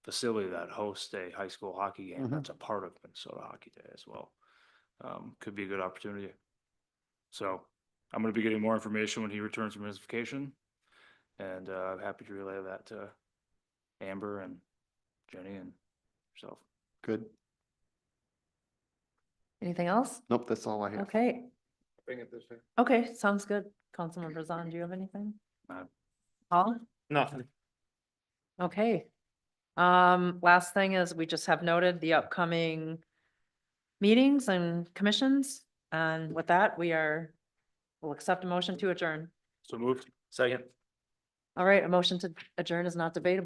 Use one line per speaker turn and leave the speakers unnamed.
facility that hosts a high school hockey game
Mhm.
that's a part of Minnesota Hockey Day as well. Um, could be a good opportunity. So I'm gonna be getting more information when he returns from his vacation. And, uh, I'm happy to relay that to Amber and Jenny and yourself.
Good.
Anything else?
Nope, that's all I have.
Okay,
Bring it this way.
okay, sounds good. Councilmember Zahn, do you have anything?
No.
Paul?
Nothing.
Okay. Um, last thing is we just have noted the upcoming meetings and commissions. And with that, we are, we'll accept a motion to adjourn.
So moved. Second.
All right, a motion to adjourn is not debatable.